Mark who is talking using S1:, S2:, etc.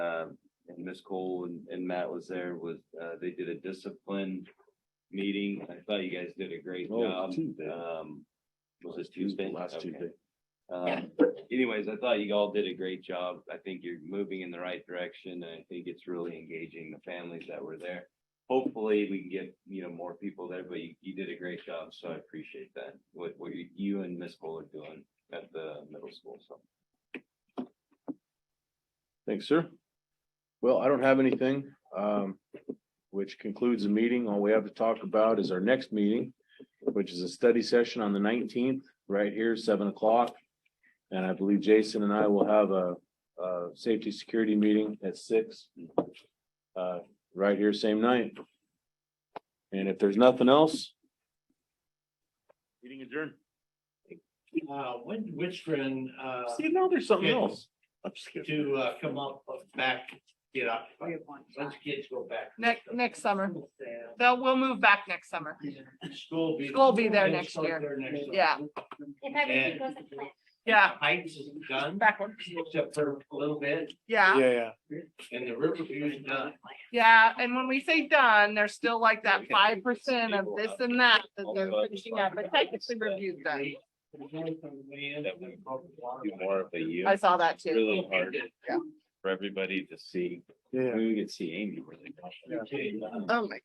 S1: Ms. Cole um, and, and Matt was there was, uh, they did a discipline meeting. I thought you guys did a great
S2: Oh,
S1: job.
S2: Tuesday.
S1: Um, was this Tuesday?
S2: Last
S1: Okay.
S2: Tuesday.
S1: Um, anyways, I thought you all did a great job. I think you're moving in the right direction. and I think it's really engaging the families that were there. Hopefully, we can get, you know, more people there, but you, you did a great job, so I appreciate that. What, what you- you and Ms. Cole are doing at the middle school, so.
S2: Thanks, sir. Well, I don't have anything, um, which concludes the meeting. All we have to talk about is our next meeting, which is a study session on the nineteenth, right here, seven o'clock. And I believe Jason and I will have a, a safety security meeting at six. Uh, right here, same night. And if there's nothing else. Meeting adjourned.
S3: Uh, when Witchford, uh,
S2: See, now there's something
S3: Yeah.
S2: else. I'm just kidding.
S3: to, uh, come up, back, get up,
S4: We
S3: once
S4: have one
S3: the kids go back.
S4: Next, next summer. They'll, we'll move back next summer.
S3: School be.
S4: School be there next
S3: School
S4: year.
S3: there next year.
S4: Yeah.
S5: If everything goes to plan.
S4: Yeah,
S3: Heights is done,
S4: backwards.
S3: except for a little bit,
S4: Yeah,
S2: yeah.
S3: and the river view is done.
S4: yeah. And when we say done, there's still like that five percent of this and that that they're finishing up, but technically review's done.
S1: Do more of a you.
S4: I saw that too.
S1: Really hard for everybody to see.
S2: Yeah.
S1: Maybe we could see Amy really.
S3: Okay.
S4: Oh my